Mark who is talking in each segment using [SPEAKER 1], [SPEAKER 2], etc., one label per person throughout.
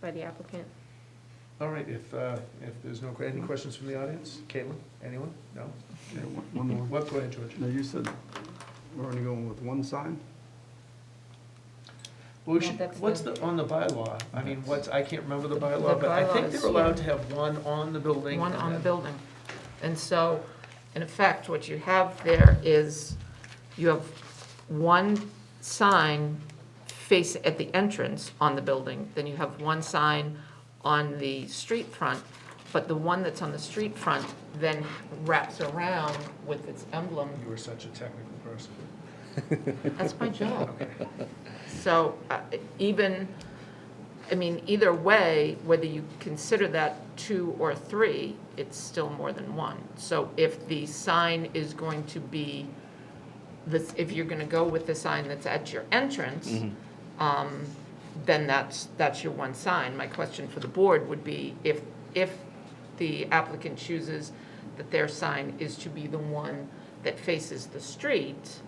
[SPEAKER 1] by the applicant.
[SPEAKER 2] All right, if, uh, if there's no, any questions from the audience? Caitlin, anyone? No?
[SPEAKER 3] Yeah, one- One more.
[SPEAKER 2] What, go ahead, George.
[SPEAKER 3] Now, you said we're only going with one sign?
[SPEAKER 2] Well, we
[SPEAKER 1] Yeah,
[SPEAKER 2] should,
[SPEAKER 1] that's
[SPEAKER 2] what's
[SPEAKER 1] the-
[SPEAKER 2] the, on the bylaw? I mean, what's, I can't remember the
[SPEAKER 4] The
[SPEAKER 2] bylaw, but I think
[SPEAKER 4] bylaw is-
[SPEAKER 2] they're allowed to have one on the building.
[SPEAKER 4] one
[SPEAKER 2] and
[SPEAKER 4] on the
[SPEAKER 2] then-
[SPEAKER 4] building. And so, in effect, what you have there is, you have one sign face, at the entrance on the building, then you have one sign on the street front, but the one that's on the street front then wraps around with its emblem.
[SPEAKER 2] You were such a technical person.
[SPEAKER 4] That's my job. So uh, even, I mean, either way, whether you consider that two or three, it's still more than one. So if the sign is going to be, this, if you're gonna go with the sign that's at your
[SPEAKER 3] Mm-hmm.
[SPEAKER 4] entrance, um, then that's, that's your one sign. My question for the board would be if, if the applicant chooses that their sign is to be the one that faces the street,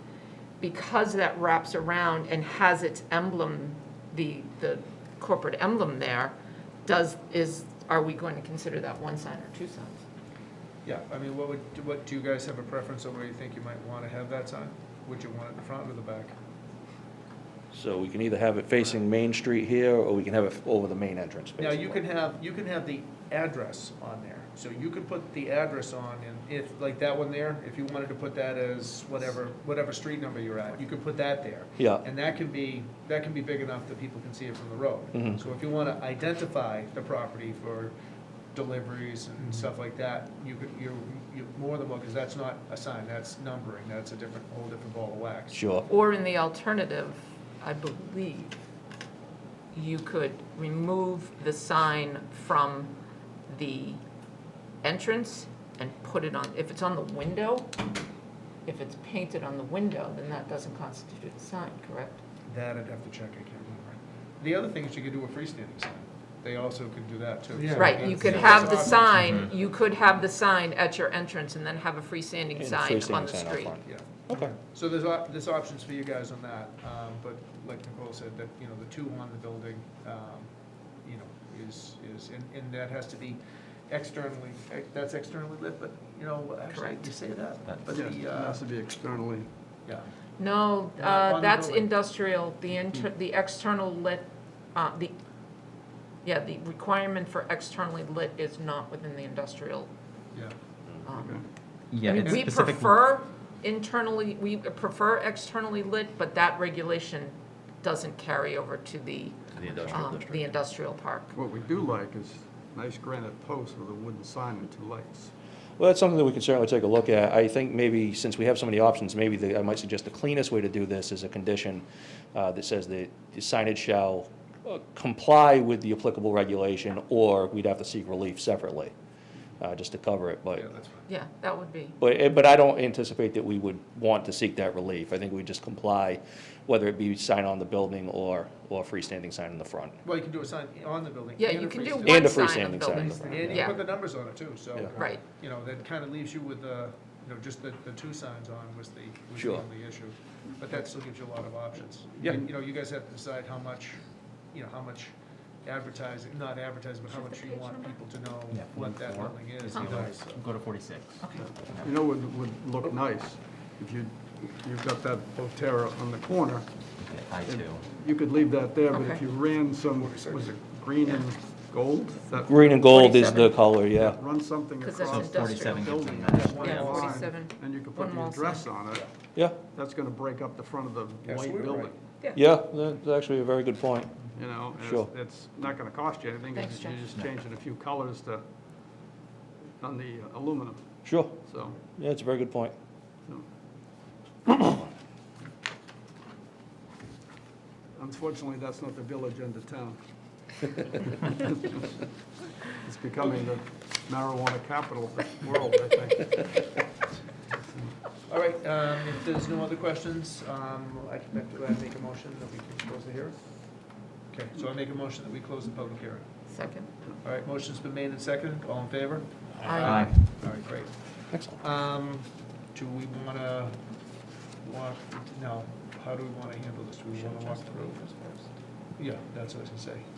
[SPEAKER 4] because that wraps around and has its emblem, the, the corporate emblem there, does, is, are we going to consider that one sign or two signs?
[SPEAKER 2] Yeah, I mean, what would, what, do you guys have a preference on where you think you might want to have that sign? Would you want it in the front or the back?
[SPEAKER 5] So we can either have it facing Main Street here, or we can have it over the main entrance,
[SPEAKER 2] Now, you
[SPEAKER 5] basically.
[SPEAKER 2] can have, you can have the address on there, so you could put the address on, and if, like that one there, if you wanted to put that as whatever, whatever street number you're at, you could put that there.
[SPEAKER 5] Yeah.
[SPEAKER 2] And that can be, that can be big enough that people can see it from the road.
[SPEAKER 5] Mhm.
[SPEAKER 2] So if you wanna identify the property for deliveries and stuff like that, you could, you're, you're more than welcome, because that's not a sign, that's numbering, that's a different, whole different ball of wax.
[SPEAKER 5] Sure.
[SPEAKER 4] Or in the alternative, I believe, you could remove the sign from the entrance and put it on, if it's on the window, if it's painted on the window, then that doesn't constitute a sign, correct?
[SPEAKER 2] That I'd have to check, I can't remember. The other thing is you could do a freestanding sign, they also could do that too. so
[SPEAKER 4] Right, you could
[SPEAKER 2] that's-
[SPEAKER 4] have the
[SPEAKER 2] that's
[SPEAKER 4] sign,
[SPEAKER 5] Mm-hmm.
[SPEAKER 4] you could have the sign at your entrance and then have a freestanding
[SPEAKER 5] And
[SPEAKER 4] sign
[SPEAKER 5] freestanding
[SPEAKER 4] on the
[SPEAKER 5] sign out
[SPEAKER 4] street.
[SPEAKER 5] front.
[SPEAKER 2] Yeah,
[SPEAKER 5] Okay.
[SPEAKER 2] so there's, op- there's options for you guys on that, um, but like Nicole said, that, you know, the two on the building, um, you know, is, is, and, and that has to be externally, ex- that's externally lit, but, you know, actually,
[SPEAKER 4] Correct.
[SPEAKER 2] you say that, but
[SPEAKER 3] Yes, It
[SPEAKER 2] the, uh,
[SPEAKER 3] has to be externally.
[SPEAKER 2] yeah.
[SPEAKER 4] No,
[SPEAKER 2] Yeah, on
[SPEAKER 4] uh,
[SPEAKER 2] the
[SPEAKER 4] that's
[SPEAKER 2] building. Hmm.
[SPEAKER 4] industrial, the inter, the external lit, uh, the, yeah, the requirement for externally lit is not within the industrial.
[SPEAKER 2] Yeah.
[SPEAKER 4] um,
[SPEAKER 3] Okay.
[SPEAKER 6] Yeah,
[SPEAKER 4] I mean,
[SPEAKER 6] it's
[SPEAKER 4] we
[SPEAKER 6] specific.
[SPEAKER 4] prefer internally, we prefer externally lit, but that regulation doesn't carry over to the,
[SPEAKER 6] The industrial
[SPEAKER 4] um, the
[SPEAKER 6] district.
[SPEAKER 4] industrial park.
[SPEAKER 3] What we do like is nice granite posts with a wooden sign and two lights.
[SPEAKER 5] Well, that's something that we can certainly take a look at. I think maybe, since we have so many options, maybe the, I might suggest the cleanest way to do this is a condition uh, that says that the signage shall uh, comply with the applicable regulation, or we'd have to seek relief separately, uh, just to cover it,
[SPEAKER 2] Yeah,
[SPEAKER 5] but,
[SPEAKER 2] that's fine.
[SPEAKER 4] Yeah, that would be,
[SPEAKER 5] but, eh, but I don't anticipate that we would want to seek that relief. I think we just comply, whether it be sign on the building or, or freestanding sign in the front.
[SPEAKER 2] Well, you can do a sign on the building.
[SPEAKER 4] yeah,
[SPEAKER 2] and
[SPEAKER 4] you
[SPEAKER 2] a
[SPEAKER 4] can do
[SPEAKER 2] freestanding.
[SPEAKER 5] And
[SPEAKER 4] one
[SPEAKER 5] a
[SPEAKER 4] sign on the
[SPEAKER 5] freestanding
[SPEAKER 4] building.
[SPEAKER 5] sign in the front.
[SPEAKER 2] And you
[SPEAKER 4] Yeah.
[SPEAKER 2] put the numbers on it too, so.
[SPEAKER 5] Yeah.
[SPEAKER 4] Right.
[SPEAKER 2] You know, that kind of leaves you with the, you know, just the, the two signs on was the, was the
[SPEAKER 5] Sure.
[SPEAKER 2] only issue. But that still gives you a lot of options.
[SPEAKER 5] Yeah.
[SPEAKER 2] And, You know, you guys have to decide how much, you know, how much advertising, not advertising, but how much you want people to know
[SPEAKER 6] Yeah,
[SPEAKER 2] what that
[SPEAKER 6] four.
[SPEAKER 2] building is, you
[SPEAKER 4] Huh.
[SPEAKER 2] know, so.
[SPEAKER 6] Go to forty-six.
[SPEAKER 3] You know, it would look nice if you, you've got that Botera on the corner.
[SPEAKER 6] I two.
[SPEAKER 3] You could leave that there, but if
[SPEAKER 4] Okay.
[SPEAKER 3] you ran some, was it green and gold? That-
[SPEAKER 5] Green and gold is the color, yeah.
[SPEAKER 3] Run something
[SPEAKER 4] Because
[SPEAKER 3] across.
[SPEAKER 4] that's
[SPEAKER 6] So
[SPEAKER 3] the
[SPEAKER 6] forty-seven gives
[SPEAKER 3] building.
[SPEAKER 6] them that.
[SPEAKER 3] one
[SPEAKER 4] Yeah,
[SPEAKER 3] line,
[SPEAKER 4] 47.
[SPEAKER 3] And you could
[SPEAKER 4] One
[SPEAKER 3] put the
[SPEAKER 4] wall
[SPEAKER 3] address on it.
[SPEAKER 5] Yeah,
[SPEAKER 3] That's gonna break up the front of the
[SPEAKER 2] Yes,
[SPEAKER 3] white
[SPEAKER 2] we're
[SPEAKER 3] building,
[SPEAKER 2] right.
[SPEAKER 5] yeah, that's actually a very good point.
[SPEAKER 3] you know? and it's-
[SPEAKER 5] Sure.
[SPEAKER 3] It's not gonna cost you anything,
[SPEAKER 4] Thanks,
[SPEAKER 3] it's- you're
[SPEAKER 4] Jeff.
[SPEAKER 3] just changing a few colors to, on the uh, aluminum,
[SPEAKER 5] Sure,
[SPEAKER 3] so,
[SPEAKER 5] yeah, it's a very good point.
[SPEAKER 3] you know. Unfortunately, that's not the village end of town. It's becoming the marijuana capital of the world, I think.
[SPEAKER 2] All right, um, if there's no other questions, um, I can I make a motion that we can close the hearing. Okay, so I make a motion that we close the public hearing.
[SPEAKER 4] Second.
[SPEAKER 2] All right, motion's been made and seconded, all in favor?
[SPEAKER 4] Aye.
[SPEAKER 2] All right, great.
[SPEAKER 5] Excellent.
[SPEAKER 2] Um, do we wanna walk, no, how do we wanna handle this? Do we wanna walk through? Yeah, that's what I was gonna say.